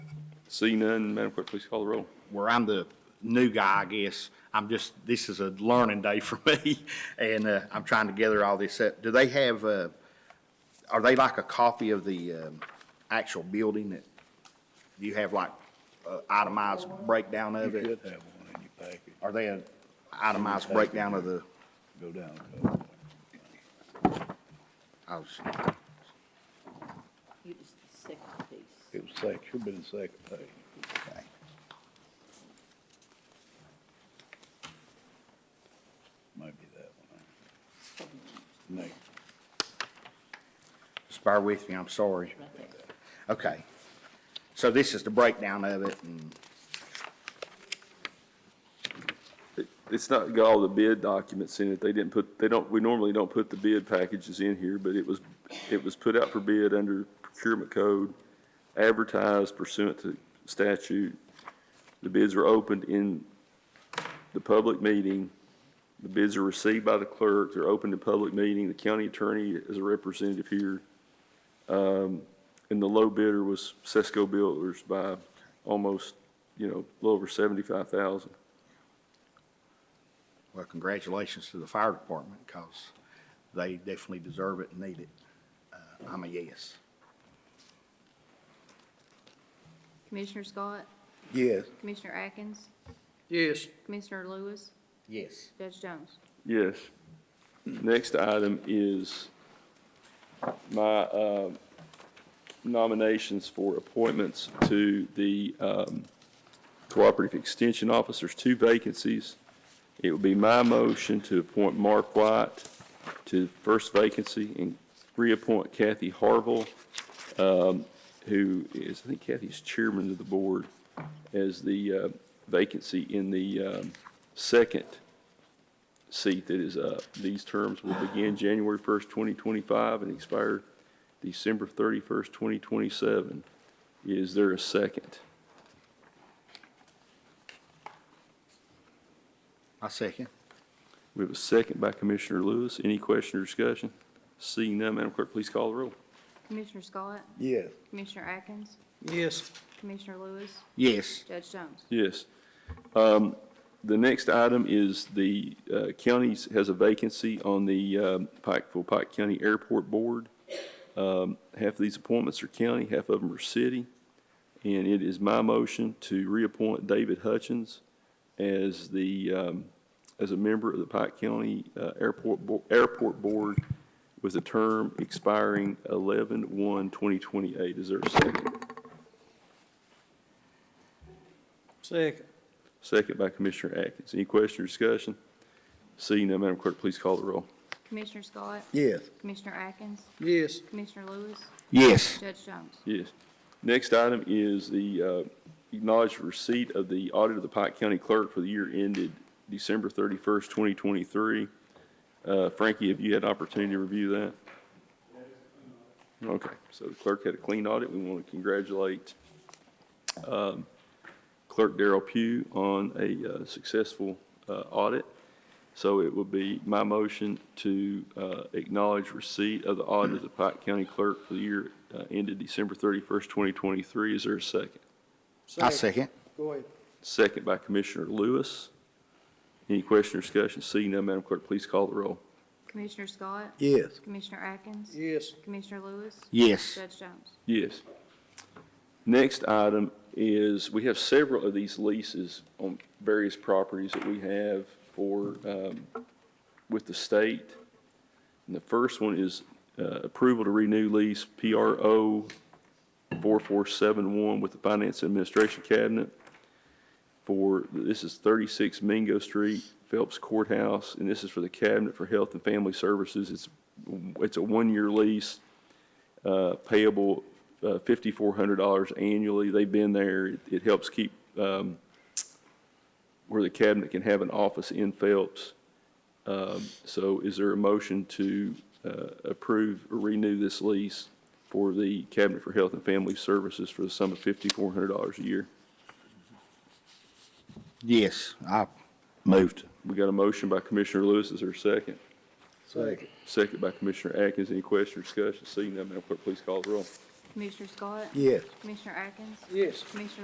See none, Madam Clerk, please call the roll. where I'm the new guy, I guess. I'm just, this is a learning day for me, and uh, I'm trying to gather all this up. Do they have, uh, are they like a copy of the um, actual building that you have like uh, itemized breakdown of You it? could have one in your package, Are they an itemized breakdown of the, go down a couple. I was, You just the second piece. It was second, should have been second page. Might be that one. Next, just bear with me, I'm sorry. Right there. Okay. So this is the breakdown of it, and It's not got all the bid documents in it. They didn't put, they don't, we normally don't put the bid packages in here, but it was, it was put out for bid under procurement code, advertised pursuant to statute. The bids were opened in the public meeting. The bids are received by the clerk, they're opened in public meeting. The county attorney is a representative here. Um, and the low bidder was Sesco Builders by almost, you know, a little over seventy-five thousand. well, congratulations to the fire department, because they definitely deserve it and need it. Uh, I'm a yes. Commissioner Scott, yes, Commissioner Atkins, yes, Commissioner Lewis, Yes. Judge Jones. Yes. Next item is my uh, nominations for appointments to the um, Cooperative Extension Officers, two vacancies. It would be my motion to appoint Mark White to the first vacancy and reappoint Kathy Harville, um, who is, I think Kathy's chairman of the board, as the uh, vacancy in the um, second seat that is up. These terms will begin January 1st, 2025 and expire December 31st, 2027. Is there a second? I second. We have a second by Commissioner Lewis. Any question or discussion? Seeing none, Madam Clerk, please call the roll. Commissioner Scott, yes, Commissioner Atkins, yes, Commissioner Lewis, Yes. Judge Jones. Yes. Um, The next item is the uh, county's, has a vacancy on the um, Pikeville, Pike County Airport Board. Um, Half of these appointments are county, half of them are city. And it is my motion to reappoint David Hutchins as the, um, as a member of the Pike County uh, Airport, Bo- Airport Board with a term expiring 11/1/2028. Is there a second? second, Second by Commissioner Atkins. Any question or discussion? Seeing none, Madam Clerk, please call the roll. Commissioner Scott, yes, Commissioner Atkins, yes, Commissioner Lewis, Yes. Judge Jones. Yes. Next item is the uh, acknowledged receipt of the audit of the Pike County Clerk for the year ended December 31st, 2023. Uh, Frankie, have you had opportunity to review that? Okay, so the clerk had a clean audit. We want to congratulate um, Clerk Darrell Pugh on a uh, successful uh, audit. So it would be my motion to uh, acknowledge receipt of the audit of the Pike County Clerk for the year uh, ended December 31st, 2023. Is there a second? I second. Go ahead, Second by Commissioner Lewis. Any question or discussion? Seeing none, Madam Clerk, please call the roll. Commissioner Scott, yes, Commissioner Atkins, yes, Commissioner Lewis, Yes. Judge Jones. Yes. Next item is, we have several of these leases on various properties that we have for, um, with the state. And the first one is uh, approval to renew lease PRO 4471 with the Finance Administration Cabinet for, this is 36 Mingo Street, Phelps Courthouse, and this is for the Cabinet for Health and Family Services. It's, it's a one-year lease uh, payable uh, $5,400 annually. They've been there. It- It helps keep um, where the cabinet can have an office in Phelps. Um, So is there a motion to uh, approve or renew this lease for the Cabinet for Health and Family Services for the sum of $5,400 a year? Yes. I moved. We got a motion by Commissioner Lewis. Is there a second? second, Second by Commissioner Atkins. Any question or discussion? Seeing none, Madam Clerk, please call the roll. Commissioner Scott, yes. Commissioner Atkins, yes. Commissioner